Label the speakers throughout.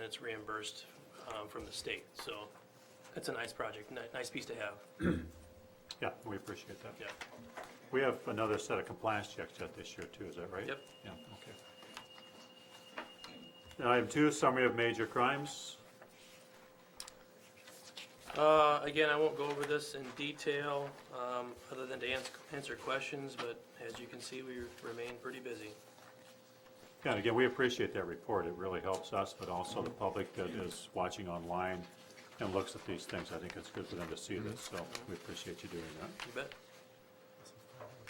Speaker 1: that's reimbursed um, from the state. So it's a nice project, ni- nice piece to have,
Speaker 2: Yeah, we appreciate that.
Speaker 1: yeah.
Speaker 2: We have another set of compliance checks yet this year too, is that right?
Speaker 1: Yep.
Speaker 2: Yeah, okay. And item two, summary of major crimes.
Speaker 1: Uh, Again, I won't go over this in detail, um, other than to ans- answer questions, but as you can see, we remain pretty busy.
Speaker 2: Yeah, And again, we appreciate that report. It really helps us, but also the public that is watching online and looks at these things. I think it's good for them to see this, so we appreciate you doing that.
Speaker 1: You bet.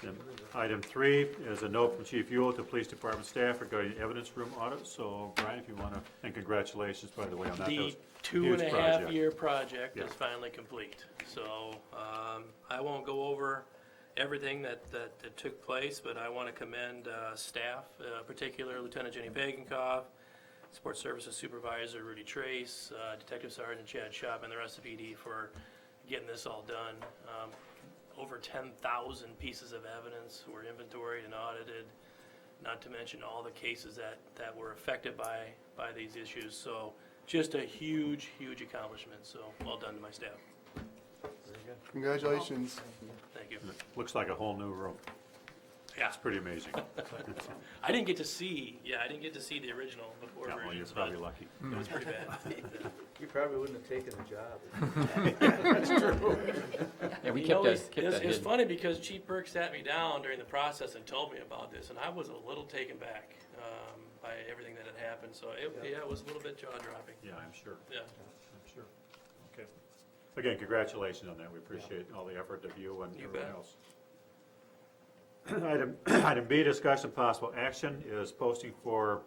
Speaker 2: And Item three is a note from Chief Yule to Police Department staff regarding evidence room audit. So Brian, if you want to, and congratulations, by the way, on that. That was
Speaker 1: The
Speaker 2: a
Speaker 1: two and a
Speaker 2: huge
Speaker 1: half
Speaker 2: project.
Speaker 1: year project is
Speaker 2: Yeah.
Speaker 1: finally complete. So, um, I won't go over everything that, that, that took place, but I want to commend, uh, staff, uh, particularly Lieutenant Jenny Pagankoff, Sports Services Supervisor Rudy Trace, uh, Detective Sergeant Chad Shop, and the rest of ED for getting this all done. Um, Over ten thousand pieces of evidence were inventoried and audited, not to mention all the cases that, that were affected by, by these issues. So just a huge, huge accomplishment, so well done to my staff.
Speaker 3: Congratulations.
Speaker 1: Thank you.
Speaker 2: Looks like a whole new room.
Speaker 1: Yeah,
Speaker 2: It's pretty amazing.
Speaker 1: I didn't get to see, yeah, I didn't get to see the original before
Speaker 2: Yeah, well, you're
Speaker 1: versions, but
Speaker 2: probably lucky.
Speaker 1: it was pretty bad.
Speaker 4: You probably wouldn't have taken the job.
Speaker 5: Yeah, we
Speaker 1: You
Speaker 5: kept
Speaker 1: know,
Speaker 5: that,
Speaker 1: it's-
Speaker 5: kept
Speaker 1: it's- It's
Speaker 5: that hidden.
Speaker 1: funny because Chief Burke sat me down during the process and told me about this, and I was a little taken back um, by everything that had happened, so it, yeah, it was a little bit jaw-dropping,
Speaker 2: Yeah, I'm sure,
Speaker 1: yeah.
Speaker 2: I'm sure. Okay. Again, congratulations on that. We appreciate all the effort of you and
Speaker 1: You
Speaker 2: everyone
Speaker 1: bet.
Speaker 2: else. Item, item B, discussion of possible action is posting for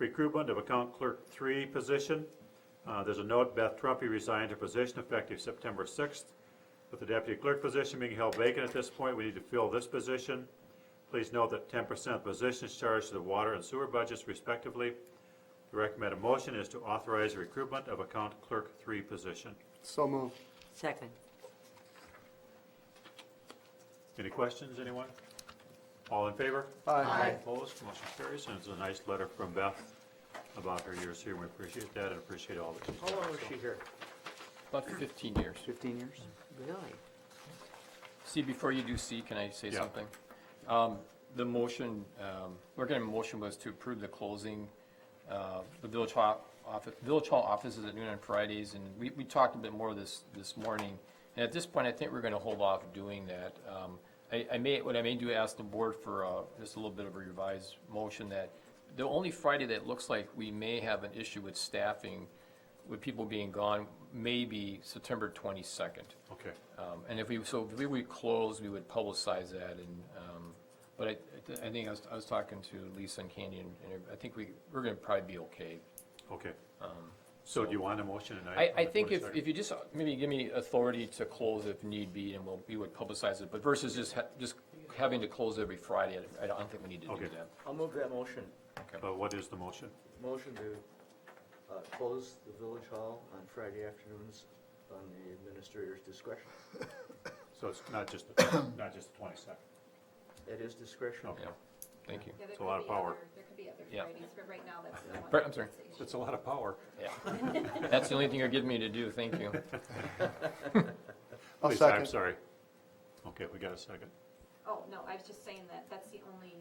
Speaker 2: recruitment of account clerk three position. Uh, there's a note, Beth Trumpy resigned her position effective September sixth. With the deputy clerk position being held vacant at this point, we need to fill this position. Please note that ten percent of the position is charged to the water and sewer budgets respectively. The recommended motion is to authorize the recruitment of account clerk three position.
Speaker 3: So moved.
Speaker 6: Second.
Speaker 2: Any questions, anyone? All in favor?
Speaker 3: Aye.
Speaker 2: Opposed, motion carries, and it's a nice letter from Beth about her years here, and we appreciate that and appreciate all that she's
Speaker 4: How long was she here?
Speaker 5: About fifteen years.
Speaker 3: Fifteen years.
Speaker 6: Really?
Speaker 5: See, before you do C, can I say
Speaker 2: Yeah.
Speaker 5: something? Um, the motion, um, recommended motion was to approve the closing, uh, the village hall office, village hall offices at noon on Fridays, and we, we talked a bit more this, this morning. And at this point, I think we're gonna hold off doing that. Um, I, I may, what I may do, ask the board for, uh, just a little bit of a revised motion that the only Friday that looks like we may have an issue with staffing, with people being gone, may be September twenty-second.
Speaker 2: Okay,
Speaker 5: Um, And if we, so if we would close, we would publicize that and, um, but I, I th- I think I was, I was talking to Lisa and Candy and and I think we, we're gonna probably be okay.
Speaker 2: okay. So do you want a motion
Speaker 5: Um, I,
Speaker 2: tonight?
Speaker 5: I think if, if you just uh, maybe give me authority to close if need be and we'll, we would publicize it, but versus just, ha- just having to close every Friday, I- I don't think we need to
Speaker 2: Okay.
Speaker 5: do that.
Speaker 4: I'll move that motion.
Speaker 2: Uh, what is the motion?
Speaker 4: Motion to uh, close the village hall on Friday afternoons on the administrator's discretion.
Speaker 2: So it's not just, the not just the twenty-second.
Speaker 4: At his discretion.
Speaker 2: Okay.
Speaker 5: Oh, Yeah, thank you.
Speaker 7: Yeah, there
Speaker 2: It's a lot
Speaker 7: could
Speaker 2: of
Speaker 7: be
Speaker 2: power.
Speaker 7: other- There could be other
Speaker 5: Yeah.
Speaker 7: Fridays, but right now, that's the one.
Speaker 5: Brett, I'm sorry.
Speaker 7: that's the issue.
Speaker 2: It's a lot of power.
Speaker 5: Yeah. That's the only thing you're giving me to do, thank you.
Speaker 3: I'll
Speaker 2: Lisa, I'm
Speaker 3: second.
Speaker 2: sorry. Okay, we got a second.
Speaker 7: Oh, no, I was just saying that that's the only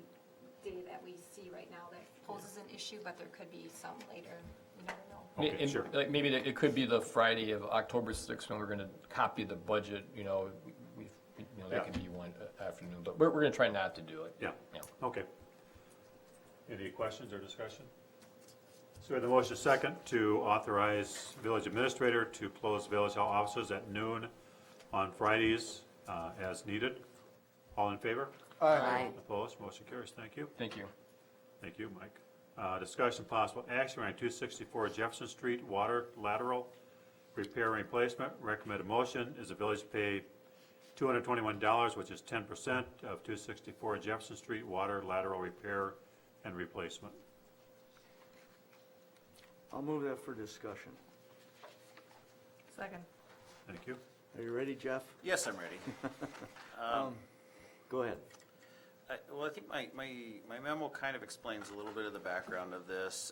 Speaker 7: day that we see right now that poses an issue, but there could be some later, you never know.
Speaker 5: May-
Speaker 2: Okay,
Speaker 5: and,
Speaker 2: sure.
Speaker 5: Like, maybe that- it could be the Friday of October sixth when we're gonna copy the budget, you know, we, we- you know, that
Speaker 2: Yeah.
Speaker 5: could be one uh, afternoon, but we're, we're gonna try not to do it.
Speaker 2: Yeah.
Speaker 5: Yeah.
Speaker 2: Okay. Any questions or discussion? So we have the motion second to authorize village administrator to close village hall offices at noon on Fridays uh, as needed. All in favor?
Speaker 6: Aye.
Speaker 2: Opposed? Motion carries. Thank you.
Speaker 5: Thank you.
Speaker 2: Thank you, Mike. Uh, Discussion possible action on 264 Jefferson Street water lateral repair and replacement. Recommended motion is the village pay $221, which is 10% of 264 Jefferson Street water lateral repair and replacement.
Speaker 4: I'll move that for discussion.
Speaker 8: Second.
Speaker 2: Thank you.
Speaker 4: Are you ready, Jeff? Um,
Speaker 9: Yes, I'm ready.
Speaker 4: Go ahead.
Speaker 9: Uh, I- Well, I think my, my, my memo kind of explains a little bit of the background of this,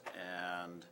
Speaker 9: and